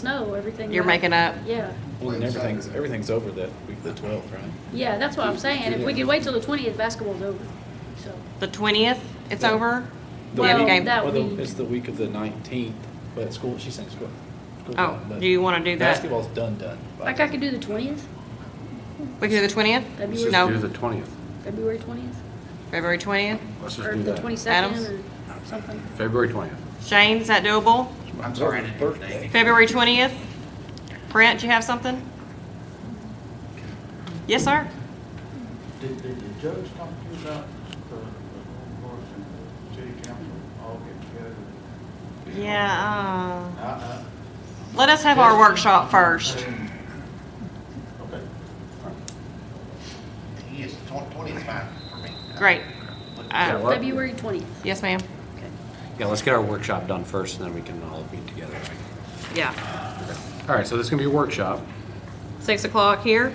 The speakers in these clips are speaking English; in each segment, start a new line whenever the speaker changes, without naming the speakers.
snow, everything.
You're
like-
making up.
Yeah,
Well, and everything's, everything's over that week, the twelfth, right?
yeah, that's what I'm saying. If we could wait till the twentieth, basketball's over, so.
The twentieth, it's
Yeah.
over?
The
Yeah,
week-
game.
that
well, the-
week.
It's the week of the nineteenth, but school, she's saying school. school's
Oh,
done, but
do you wanna do that?
Basketball's done, done. by
Like I could do the twentieth,
We can do the twentieth?
Let's just
February,
No.
do the twentieth.
February twentieth,
February twentieth?
Let's just
or
do
the
that.
twenty-second,
Adams?
or something.
February twentieth.
Shane, is that doable?
I'm sorry, I didn't hear your
birthday.
name.
February twentieth? Brent, you have something? Yes, sir?
Did, did the judge talk to you about the, the courts and the city council all get together?
Yeah, uh,
I-
let us have our workshop first.
I- Okay.
Yes, tw- twenty is fine for me.
Great.
Yeah,
Uh,
well-
February twentieth,
yes, ma'am.
okay.
Yeah, let's get our workshop done first, and then we can all meet together.
Yeah.
All right, so this is gonna be a workshop.
Six o'clock here?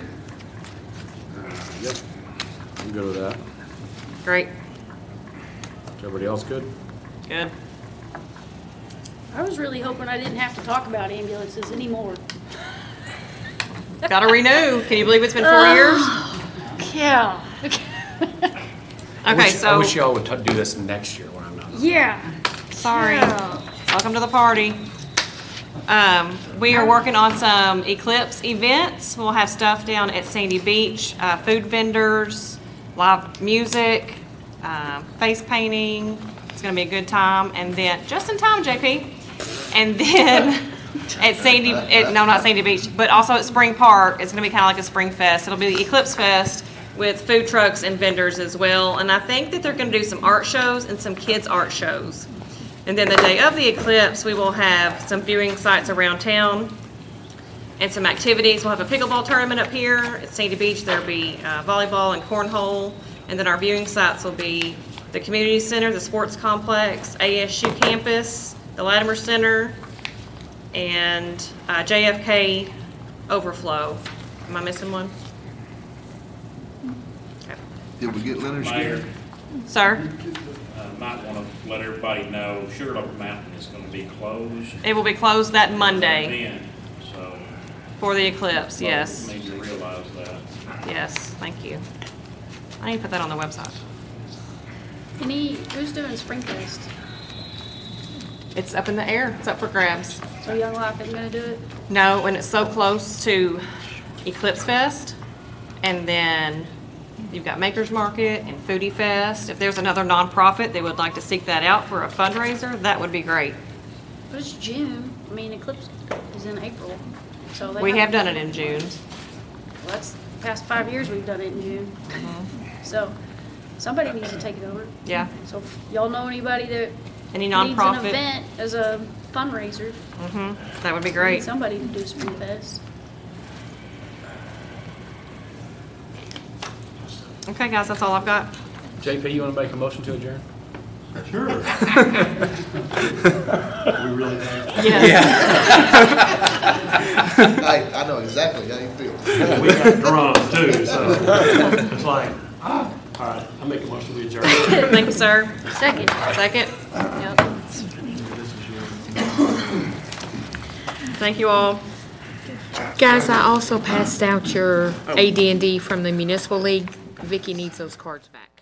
Yep. I'm good with that.
Great.
Is everybody else good?
Good.
I was really hoping I didn't have to talk about ambulances anymore.
Gotta renew. Can you believe it's been four years?
Yeah.
I
Okay,
wish- I
so,
wish y'all would t- do this next year when I'm not.
Yeah.
sorry. Welcome to the party. Um, we are working on some Eclipse events. We'll have stuff down at Sandy Beach, uh, food vendors, live music, um, face painting. It's gonna be a good time. And then, just in time, JP. And then at Sandy, at, no, not Sandy Beach, but also at Spring Park, it's gonna be kinda like a Spring Fest. It'll be the Eclipse Fest with food trucks and vendors as well. And I think that they're gonna do some art shows and some kids' art shows. And then the day of the eclipse, we will have some viewing sites around town and some activities. We'll have a pickleball tournament up here at Sandy Beach. There'll be uh, volleyball and cornhole. And then our viewing sites will be the community center, the sports complex, ASU campus, the Latimer Center, and uh, JFK overflow. Am I missing one? Okay.
Did we get Leonard's
Mayor,
Sir,
uh, might want to let everybody know Sugarloaf Mountain is going to be closed.
it will be closed that Monday
Then, so.
for the eclipse, yes.
Need to realize that.
Yes, thank you. I need to put that on the website.
Any, who's doing Springfest?
It's up in the air. It's up for grabs.
So Young Life isn't gonna do it?
No, and it's so close to Eclipse Fest, and then you've got Makers Market and Foodie Fest. If there's another nonprofit that would like to seek that out for a fundraiser, that would be great.
But it's June, I mean, Eclipse is in April, so they.
We have done it in June.
Well, that's, past five years we've done it in June. So, somebody needs to take it over.
Mm-hmm. Yeah.
So if y'all know anybody that
Any
needs an
nonprofit?
event as a fundraiser,
hmm that would be
we need
great.
somebody to do Springfest.
Okay, guys, that's all I've got.
JP, you wanna make a motion to adjourn?
Yes.
I, I know exactly how you feel.
We got drunk too, so it's like, ah, all right, I make a motion to adjourn.
Thank you, sir.
Second.
Second? Thank you all.
Guys, I also passed out your AD&D from the Municipal League. Vicky needs those cards back.